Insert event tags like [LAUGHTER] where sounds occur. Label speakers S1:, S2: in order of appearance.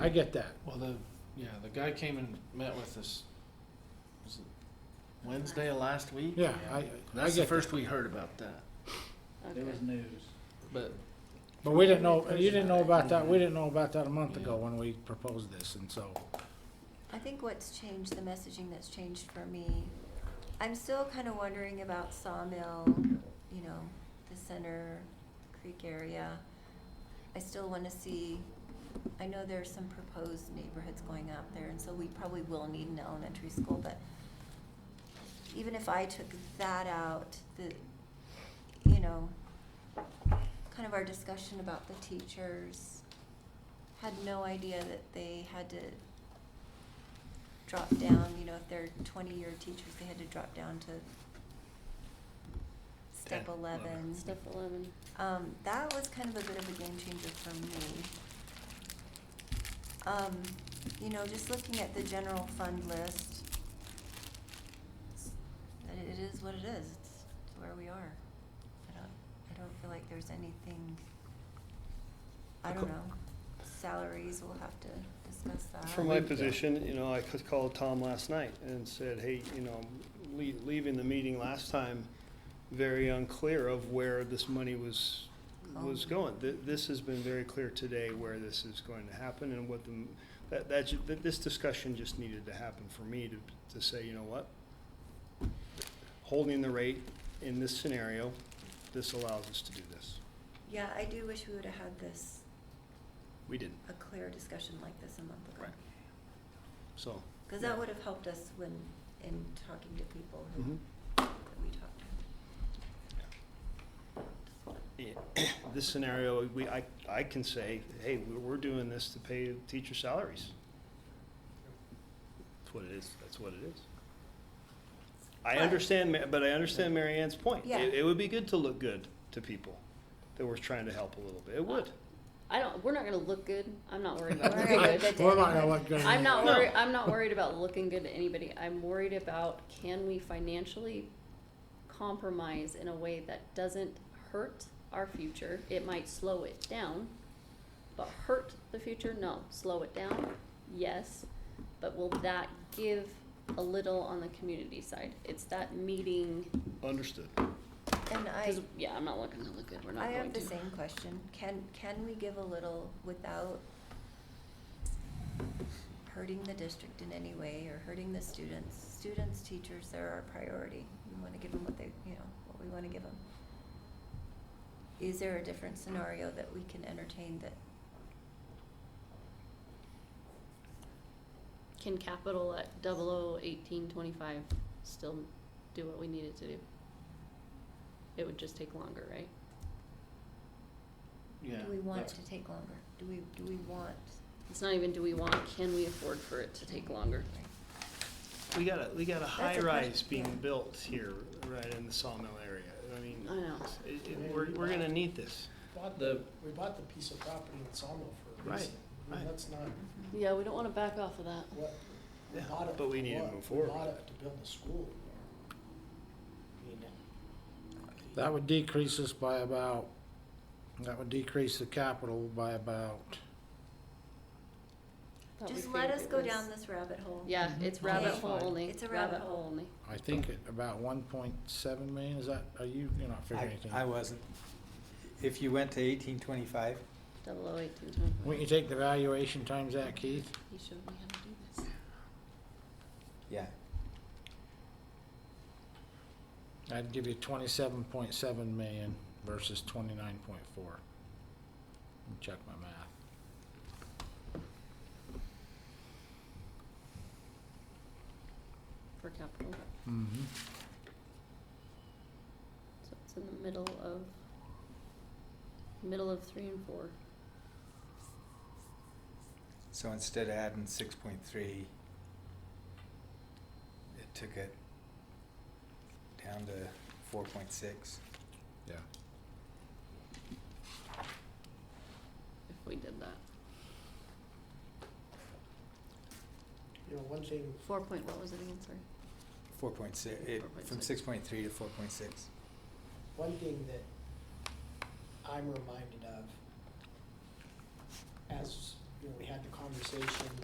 S1: I get that.
S2: Well, the, yeah, the guy came and met with us, was it Wednesday of last week?
S1: Yeah, I, I
S2: That's the
S1: get that.
S2: first we heard about that,
S3: It was news.
S2: but
S1: But we didn't know, you didn't know about that, we didn't know about that a month ago when we proposed this, and so.
S4: I think what's changed, the messaging that's changed for me, I'm still kind of wondering about Sawmill, you know, the center creek area. I still want to see, I know there's some proposed neighborhoods going out there, and so we probably will need an elementary school, but even if I took that out, the, you know, kind of our discussion about the teachers, had no idea that they had to drop down, you know, if they're twenty-year teachers, they had to drop down to step
S2: Ten, eleven.
S4: eleven.
S3: Step eleven.
S4: Um, that was kind of a bit of a game changer for me. Um, you know, just looking at the general fund list, it's- it it is what it is, it's where we are. I don't, I don't feel like there's anything, I don't
S5: Okay.
S4: know, salaries, we'll have to discuss that.
S5: From my position, you know, I c- called Tom last night and said, hey, you know, le- leaving the meeting last time, very unclear of where this money was,
S4: Oh.
S5: was going. Th- This has been very clear today where this is going to happen and what the, m- that, that, ju- that this discussion just needed to happen for me to, to say, you know what? Holding the rate in this scenario, this allows us to do this.
S4: Yeah, I do wish we would've had this,
S5: We didn't,
S4: a clear discussion like this a month ago.
S5: Right. so.
S4: Cause
S5: Yeah.
S4: that would've helped us when, in talking to people who
S3: Mm-hmm.
S5: mhm.
S4: that we talked to.
S5: Yeah, This scenario, we, I, I can say, hey, we're, we're doing this to pay teacher salaries. That's what it is, that's what it is. I
S4: But-
S5: understand, Ma- but I understand Mary Ann's point.
S4: Yeah.
S5: It, it would be good to look good to people that we're trying to help a little bit, it would.
S3: I don't, we're not gonna look good. I'm not worried
S4: [LAUGHS]
S3: about
S4: We're
S3: looking
S4: not
S3: good.
S4: good.
S1: We're not gonna look good.
S3: I'm not
S5: No.
S3: worried, I'm not worried about looking good to anybody. I'm worried about can we financially compromise in a way that doesn't hurt our future? It might slow it down, but hurt the future? No. Slow it down? Yes. But will that give a little on the community side? It's that meeting,
S5: Understood.
S4: And I,
S3: cause, yeah, I'm not looking to look good. We're not
S4: I
S3: going to.
S4: have the same question. Can, can we give a little without hurting the district in any way or hurting the students? Students, teachers, they're our priority. We wanna give them what they, you know, what we wanna give them. Is there a different scenario that we can entertain that,
S3: Can capital at double oh eighteen twenty-five still do what we need it to do? It would just take longer, right?
S2: yeah.
S4: do we want it
S2: that's-
S4: to take longer? Do we, do we want?
S3: It's not even do we want, can we afford for it to take longer?
S4: Right.
S5: We got a, we got a
S4: a
S5: high rise
S4: question,
S5: being
S4: yeah.
S5: built here, right in the sawmill area, I mean,
S3: I know.
S5: it, it, we're, we're gonna need this.
S6: bought
S2: The-
S6: the, we bought the piece of property in Sawmill for a
S5: Right,
S6: reason. I mean,
S5: right.
S6: That's not
S4: Mm-hmm.
S3: Yeah, we don't wanna back off of that.
S6: what, we
S5: Yeah,
S6: bought it.
S5: but we
S6: for
S5: need to
S6: what?
S5: move forward
S6: We bought
S5: with
S6: it to build a school. I mean,
S1: That would decrease us by about, that would decrease the capital by about,
S3: Thought we
S4: Just let
S3: figured
S4: us
S3: it
S4: go
S3: was-
S4: down this rabbit hole.
S3: Yeah, it's
S1: Mhm.
S3: rabbit
S1: That's
S3: hole
S1: fine.
S3: only,
S4: It's a rabbit
S3: rabbit hole
S4: hole.
S3: only.
S1: I think, at about one point seven million, is that, are you, you're not figuring
S7: I,
S1: anything?
S7: I wasn't. If you went to eighteen twenty-five,
S3: Double oh eighteen twenty-five.
S1: Wouldn't you take the valuation times that, Keith?
S3: You showed me how to do this.
S7: yeah,
S1: I'd give you twenty-seven point seven million versus twenty-nine point four. Check my math.
S3: For capital,
S1: Mm-hmm.
S3: so it's in the middle of, middle of three and four.
S7: so instead of adding six point three, it took it down to four point six.
S1: Yeah.
S3: if we did that.
S6: You know, one thing,
S3: Four point, what was it again, sorry?
S7: Four point six. it, from
S3: 4.6.
S7: six point three to four point six.
S6: one thing that I'm reminded of as
S1: you know, we had the conversation